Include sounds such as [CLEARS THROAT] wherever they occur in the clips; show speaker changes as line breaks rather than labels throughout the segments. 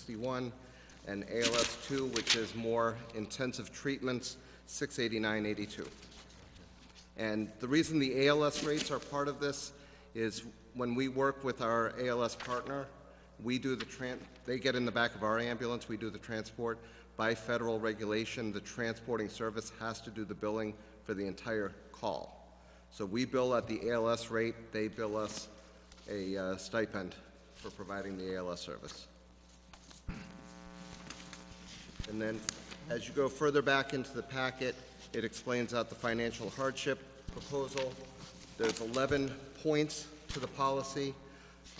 61, and ALS 2, which is more intensive treatments, 68982. And the reason the ALS rates are part of this is when we work with our ALS partner, we do the tran, they get in the back of our ambulance, we do the transport. By federal regulation, the transporting service has to do the billing for the entire call. So we bill at the ALS rate, they bill us a uh, stipend for providing the ALS service. And then, as you go further back into the packet, it explains out the financial hardship proposal. There's 11 points to the policy.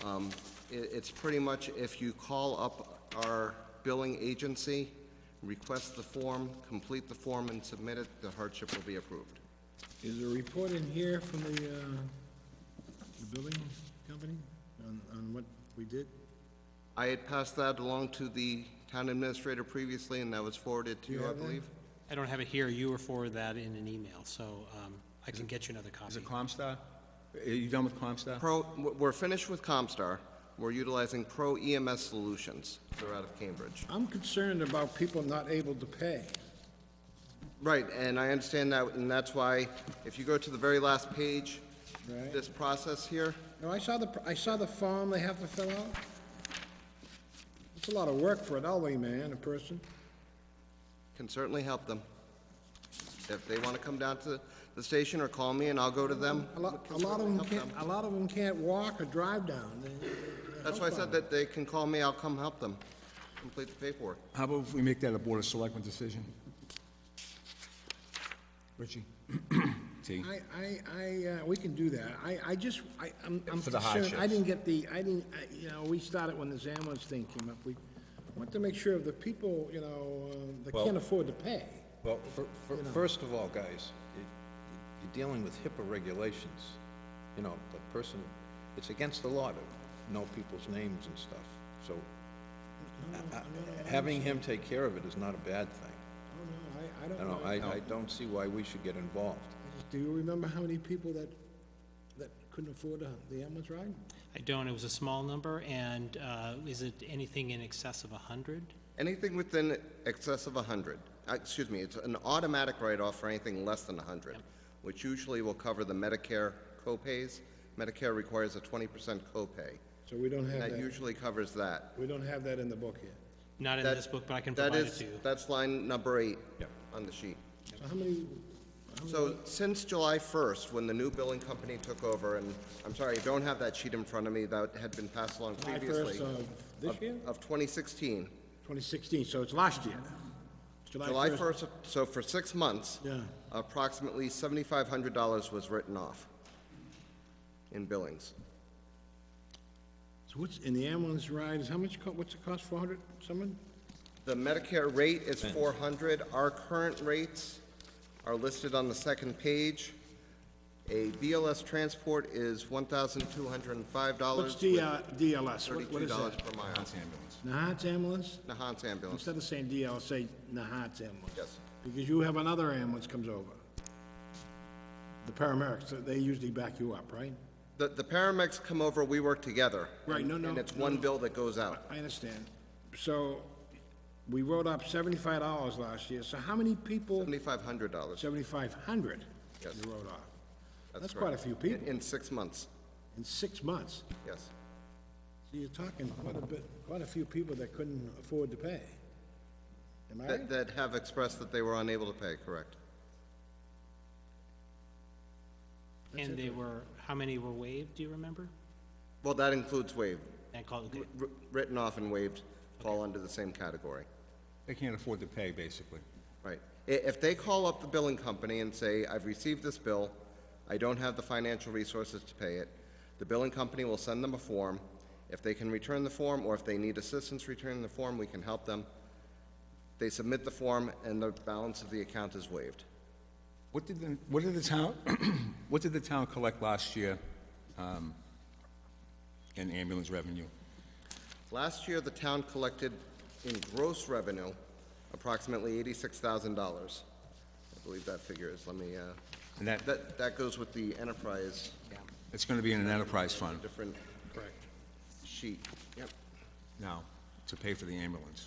Um, i- It's pretty much if you call up our billing agency, request the form, complete the form, and submit it, the hardship will be approved.
Is there a report in here from the, uh, the building company on, on what we did?
I had passed that along to the town administrator previously, and that was forwarded to
You
you, I
have that?
believe.
I don't have it here, you were forwarded that in an email, so um, I can get you another copy.
Is it Comstar? Are you done with Comstar?
Pro, we're finished with Comstar. We're utilizing Pro EMS Solutions. They're out of Cambridge.
I'm concerned about people not able to pay.
Right, and I understand that, and that's why, if you go to the very last page,
Right.
this process here,
No, I saw the, I saw the form they have to fill out. It's a lot of work for an elderly man, a person.
can certainly help them. If they want to come down to the station or call me and I'll go to them.
A lot, a lot of them can't, a lot of them can't walk or drive down. They- they're
That's why I said
housebound.
that they can call me, I'll come help them, complete the paperwork.
How about if we make that a Board of Selectmen decision? Richie? T.
I, I, I, uh, we can do that. I, I just, I, I'm, I'm
For the
concerned, I
hardships.
didn't get the, I didn't, I- you know, we started when this ambulance thing came up. We want to make sure of the people, you know, um, that can't afford to pay.
Well, fir- fir- first of all, guys, it- it- you're dealing with HIPAA regulations. You know, the person, it's against the law to know people's names and stuff. So I- I- having him take care of it is not a bad thing.
I don't know, I, I
You
don't
know,
know.
I, I don't see why we should get involved.
Do you remember how many people that, that couldn't afford uh, the ambulance ride?
I don't, it was a small number, and uh, is it anything in excess of 100?
Anything within excess of 100, uh, excuse me, it's an automatic write-off for anything less than 100, which usually will cover the Medicare copays. Medicare requires a 20% copay.
So we don't have
That
that,
usually covers that.
we don't have that in the book yet.
Not in
That-
this book, but I can
that
provide it
is-
to you.
That's line number eight
Yep.
on the sheet.
So how many, Oh,
So since July 1st, when the new billing company took over, and I'm sorry, I don't have that sheet in front of me, that had been passed along
July
previously.
first uh, of this year?
Of 2016.
Twenty sixteen, so it's last year. It's
July 1st, so for six months.
Yeah.
Approximately $7,500 was written off in billings.
So what's, in the ambulance ride is how much, co- what's it cost, four hundred, someone?
The Medicare rate is 400. Our current rates are listed on the second page. A BLS transport is $1,205.
What's D, uh, DLS, What- what
Thirty-two
is
dollars
that?
per mile.
Nahat's ambulance?
Nahant's ambulance,
Instead of saying DLS, say Nahat's ambulance.
Yes.
Because you have another ambulance comes over. The paramedics, uh, they usually back you up, right?
the, the paramedics come over, we work together.
Right, no, no,
And it's
no,
one
no.
bill that goes out.
I understand. So, we wrote up seventy-five dollars last year, so how many people,
Seventy-five hundred dollars
seventy-five hundred,
Yes.
you wrote off?
That's
That's quite a
correct.
few
in,
people,
in six months,
in six months.
yes.
So you're talking quite a bit, quite a few people that couldn't afford to pay. Am I
That,
right?
that have expressed that they were unable to pay, correct?
And they were, how many were waived, do you remember?
Well, that includes waived,
I called, okay.
Wr- written off and waived fall under the same category,
They can't afford to pay, basically.
right? I, if they call up the billing company and say, I've received this bill, I don't have the financial resources to pay it, the billing company will send them a form. If they can return the form, or if they need assistance returning the form, we can help them. They submit the form, and the balance of the account is waived.
What did the, what did the town, [CLEARS THROAT] what did the town collect last year um, in ambulance revenue?
Last year, the town collected in gross revenue approximately eighty-six thousand dollars. I believe that figure is, let me, uh,
And that-
that, that goes with the enterprise,
It's going to be in an enterprise fund
different. Correct. Sheet, yep.
now. to pay for the ambulance.